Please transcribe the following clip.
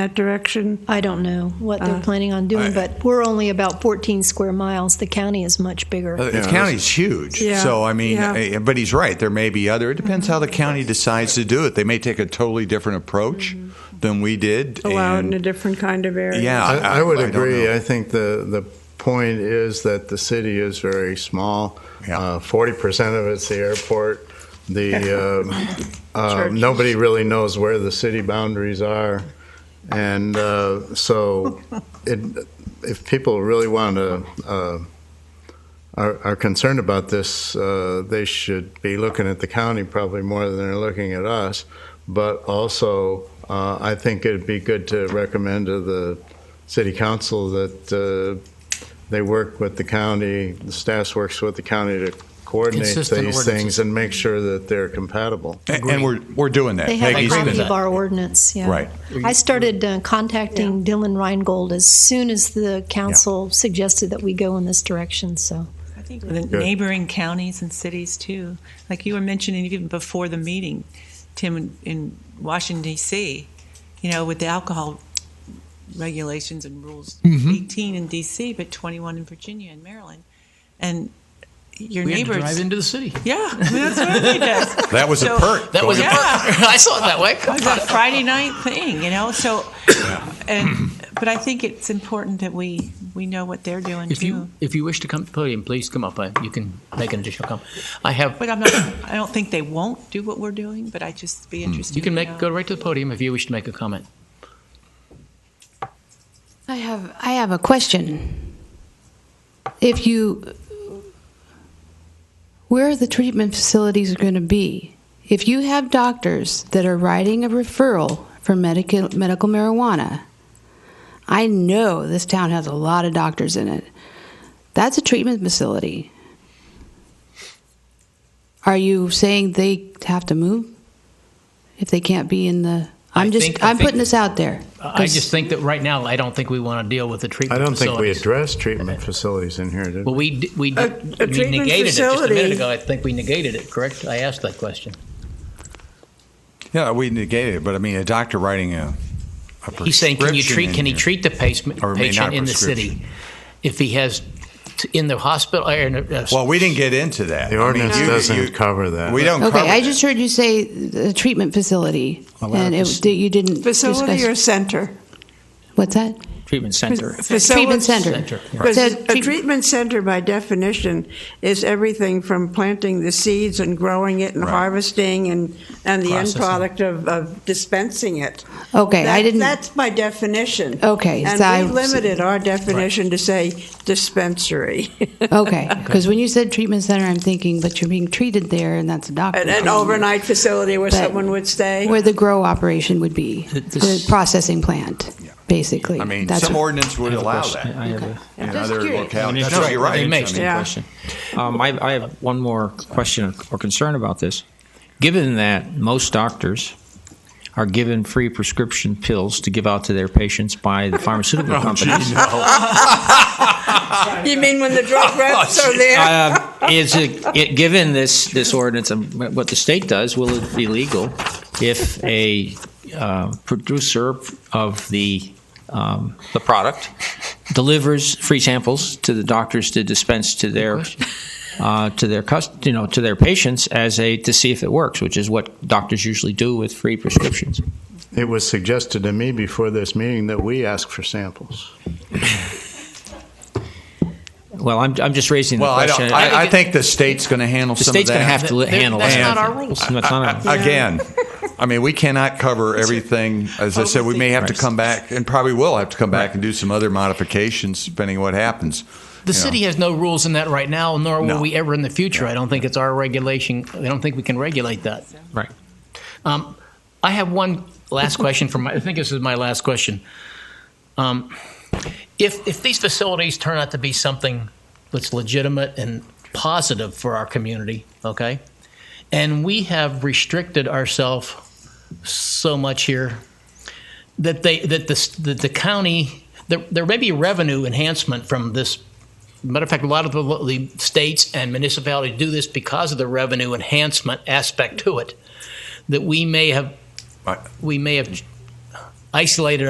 that direction? I don't know what they're planning on doing, but we're only about 14 square miles. The county is much bigger. The Uh, county's huge. Yeah, So, I mean, yeah. eh, but he's right. There may be other, it depends how the Mm-hmm. county decides to do it. They may take a totally different approach Mm-hmm. than we did. Allow it in and- a different kind of area? Yeah. I, I would I don't agree. know. I think the, the point is that the city is very small. Uh, Yeah. Forty percent of it's the airport. The, uh, uh, Churches. nobody really knows where the city boundaries are. And, uh, so it, if people really want to, uh, are, are concerned about this, uh, they should be looking at the county probably more than they're looking at us. But also, uh, I think it'd be good to recommend to the city council that uh, they work with the county, the staff works with the county to coordinate Consistent these ordinances. things and make sure that they're compatible. And and we're, we're doing that. They have a Peggy's been- copy of our ordinance, yeah. Right. I started uh, contacting Dylan Reingold as soon as the council suggested that we go in this direction, so. I think the Good. neighboring counties and cities too. Like you were mentioning even before the meeting, Tim, in, in Washington D.C., you know, with the alcohol regulations and rules, 18 in D.C., but 21 in Virginia and Maryland, and your We had to neighbors. drive into the city. yeah, I mean, that's what everybody does. That was a So- perk. That was going a perk. I saw it that way. It was a Friday night thing, you know. So, and but I think it's important that we we know what they're doing If too. you if you wish to come to the podium, please come up. I, you can make an additional comment. I have. But I'm not, I don't think they won't do what we're doing, but I just be interested. Hmm. You can to make know. go right to the podium if you wish to make a comment. I have, I have a question. If you, where are the treatment facilities going to be? If you have doctors that are writing a referral for medical, medical marijuana, I know this town has a lot of doctors in it. That's a treatment facility. Are you saying they have to move if they can't be in the? I I'm just, think- I I'm think- putting this out there. I just think that right now, I don't think we want to deal with the I treatment. don't think we facilities. addressed treatment facilities in here, did Well, we? we d- we, d- A- a we treatment negated it just a minute facility. ago. I think we negated it. Correct? I asked that question. Yeah, we negated it, but I mean, a doctor writing a, a prescription. He's saying, can you treat? in Can he here- treat the patient, Or may not patient in the city if he has t- in the hospital or in a, a Well, we didn't get into that. The I mean, ordinance you- you- doesn't cover that. We don't cover Okay, I that. just heard you say the treatment facility, Oh, Well, that and it, was- that you didn't Facility or discuss. center? What's that? treatment center? Treatment Facility- center. Center, yeah. Because Said a treat- treatment center, by definition, is everything from planting the seeds and growing it and Right. harvesting and, and the end Processing. product of, of dispensing it. Okay, I That- didn't, That's by definition. Okay, And so I- we limited our definition to say dispensary. okay, because when you said treatment center, I'm thinking, but you're being treated there, and that's a doctor. An, an overnight facility where But- someone would stay. Where the grow operation would be, The- the- the processing plant, basically. I mean, That's some what- ordinance would I have a allow question. that I have a- in Just other curious. localities. That's No, right. you're right. They may. I mean, Yeah. question. Um, I, I have one more question or concern about this. Given that most doctors are given free prescription pills to give out to their patients by the pharmaceutical Oh, companies, You mean when the drug reps Oh, are there? uh, is it, it given this this ordinance and what the state does? Will it be legal if a uh, producer of the um, the product delivers free samples to the doctors to dispense to their uh, to their cus- you know to their patients as a to see if it works, which is what doctors usually do with free prescriptions. It was suggested to me before this meeting that we ask for samples. Well, I'm, I'm just raising the Well, I don't, question. I, I think the state's going to handle the some of that. state's going to have to li- handle That's it. not our rules. It's not our- Again, I mean, we cannot cover everything. As I said, we may have to come back, and probably will have to come back and do some other modifications, depending on what happens. The you know. city has no rules in that right now, nor will No. we ever in the future. I don't think it's our regulation. I don't think we can regulate that. Right. Um, I have one last question from. My, I think this is my last question. Um, if if these facilities turn out to be something that's legitimate and positive for our community, okay, and we have restricted ourselves so much here that they that the s- that the county there, there may be revenue enhancement from this Matter of fact, a lot of the, the states and municipalities do this because of the revenue enhancement aspect to it. That we may have, Right. we may have isolated